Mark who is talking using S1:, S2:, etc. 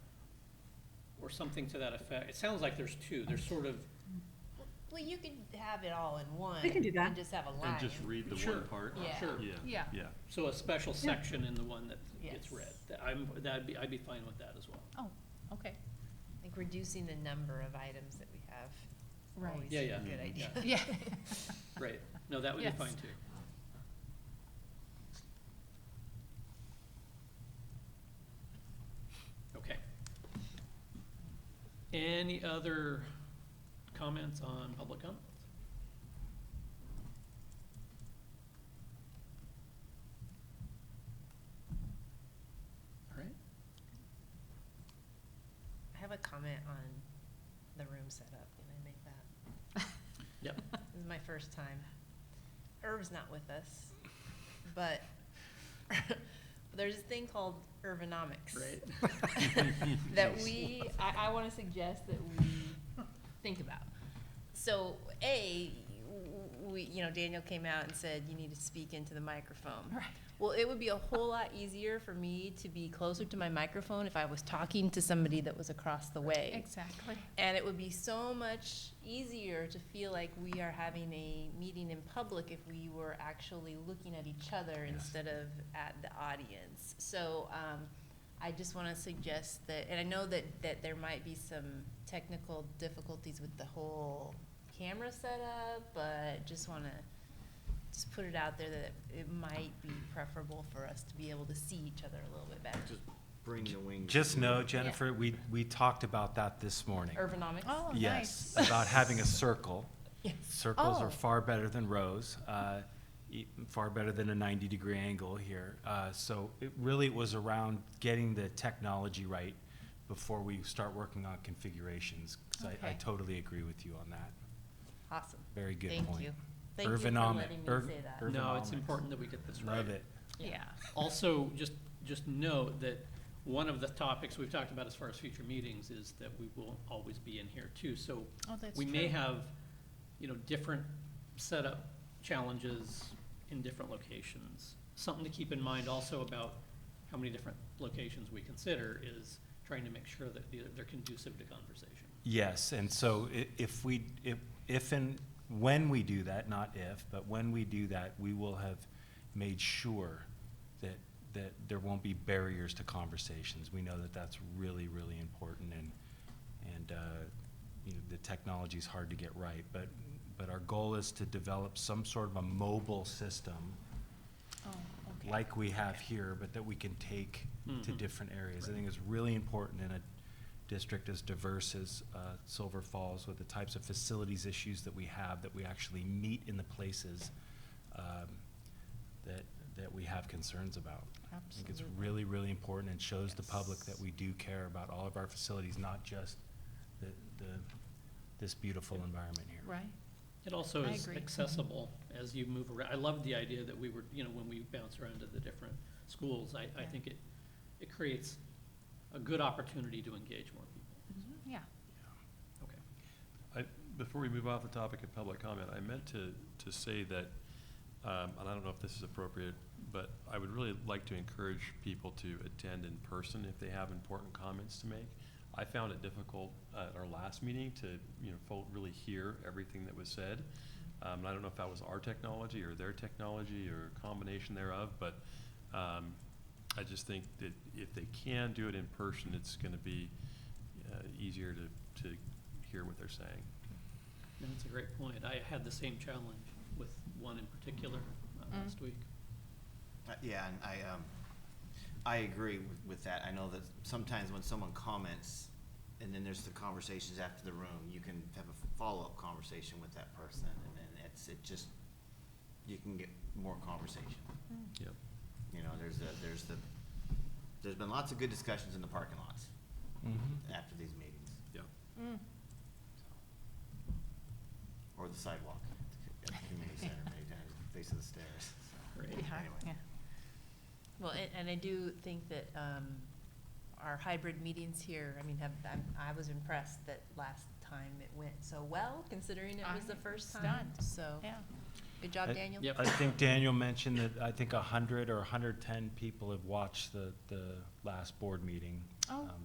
S1: something to that effect. It sounds like there's two. There's sort of,
S2: Well, you can have it all in one.
S3: We can do that.
S2: And just have a line.
S4: And just read the
S1: Sure.
S4: one part?
S2: Yeah.
S1: sure.
S4: Yeah,
S5: Yeah.
S4: yeah.
S1: So a special section in the one that
S2: Yes.
S1: gets read. That I'm, that'd be, I'd be fine with that as well.
S5: Oh, okay.
S2: Like reducing the number of items that we have.
S5: Right.
S2: Always
S1: Yeah,
S2: a
S1: yeah.
S2: Good idea.
S1: Yeah.
S5: Yeah.
S1: Right. No, that would be
S5: Yes.
S1: fine too. Okay. Any other comments on public comment? All right,
S2: I have a comment on the room setup. Can I make that?
S1: yep.
S2: This is my first time. Irv's not with us, but there's a thing called Irvonomics.
S1: Right.
S2: that we, I, I want to suggest that we think about. So, A, w- we, you know, Daniel came out and said, you need to speak into the microphone.
S5: Right.
S2: Well, it would be a whole lot easier for me to be closer to my microphone if I was talking to somebody that was across the way.
S5: Exactly.
S2: And it would be so much easier to feel like we are having a meeting in public if we were actually looking at each other
S4: Yes.
S2: instead of at the audience. So um, I just want to suggest that, and I know that, that there might be some technical difficulties with the whole camera setup, but just want to just put it out there that it might be preferable for us to be able to see each other a little bit better.
S6: Just bring the wings.
S7: Just know, Jennifer, we, we talked about that this morning.
S2: Urbanomics.
S5: Oh,
S7: Yes,
S5: nice.
S7: about having a circle.
S2: Yes.
S7: Circles
S5: Oh.
S7: are far better than rows, uh, e- far better than a 90-degree angle here. Uh, So it really was around getting the technology right before we start working on configurations. 'cause I- I
S5: Okay.
S7: totally agree with you on that.
S2: Awesome.
S7: Very good
S2: Thank
S7: point.
S2: you. Thank you for
S7: Ergonomic-
S2: letting me
S7: erg-
S2: say that.
S7: erg-
S1: No, it's
S7: Ergonomics.
S1: important that we get this right.
S7: Love it.
S5: Yeah.
S1: Also, just, just note that one of the topics we've talked about as far as future meetings is that we won't always be in here too. So
S5: Oh, that's
S1: we may
S5: true.
S1: have, you know, different setup challenges in different locations. Something to keep in mind also about how many different locations we consider is trying to make sure that they're they're conducive to conversation.
S7: Yes, and so i- if we, if, if and when we do that, not if, but when we do that, we will have made sure that, that there won't be barriers to conversations. We know that that's really, really important and, and, uh, you know, the technology's hard to get right. But, but our goal is to develop some sort of a mobile system
S5: Oh, okay. Mm-hmm.
S7: like we have here, but that we can take to
S1: Mhm.
S7: different areas. I think it's really important in a district as diverse as uh, Silver Falls with the types of facilities issues that we have, that we actually meet in the places um, that, that we have concerns about. I think it's
S5: Absolutely.
S7: really, really important and shows the public
S5: Yes.
S7: that we do care about all of our facilities, not just the, the, this beautiful environment here.
S5: Right?
S1: It also
S5: I
S1: is
S5: agree.
S1: accessible as you move around. I love the idea that we were, you know, when we bounce around to the different schools, I, I
S5: Yeah.
S1: think it, it creates a good opportunity to engage more people.
S2: Mm-hmm.
S5: Mhm, Yeah.
S1: Okay.
S4: I, before we move off the topic of public comment, I meant to, to say that, um, and I don't know if this is appropriate, but I would really like to encourage people to attend in person if they have important comments to make. I found it difficult uh, at our last meeting to, you know, fo- really hear everything that was said. Um, and I don't know if that was our technology or their technology or a combination thereof, but, um, I just think that if they can do it in person, it's gonna be, uh, easier to, to hear what they're saying.
S1: No, That's a great point. I had the same challenge with one in particular uh,
S5: Mm.
S1: last week.
S6: Uh, Yeah, and I, um, I agree with, with that. I know that sometimes when someone comments, and then there's the conversations after the room, you can have a follow-up conversation with that person, and then it's, it just, you can get more conversation.
S4: Yep.
S6: You know, there's the, there's the, there's been lots of good discussions in the parking lots
S7: Mhm.
S6: after these meetings,
S4: Yep.
S2: Mm-hmm.
S5: Mm.
S6: or the sidewalk at the community center, many times, face of the stairs. so,
S1: Great.
S5: Yeah,
S6: anyway.
S5: yeah.
S2: Well, and, and I do think that, um, our hybrid meetings here, I mean, have, I'm, I was impressed that last time it went so well, considering it was the
S5: I'm
S2: first time,
S5: stunned.
S2: so.
S5: Yeah.
S2: Good job,
S7: I-
S2: Daniel.
S1: Yep.
S7: I think Daniel mentioned that I think a hundred or hundred ten people have watched the, the last board meeting.
S5: Oh,
S7: um,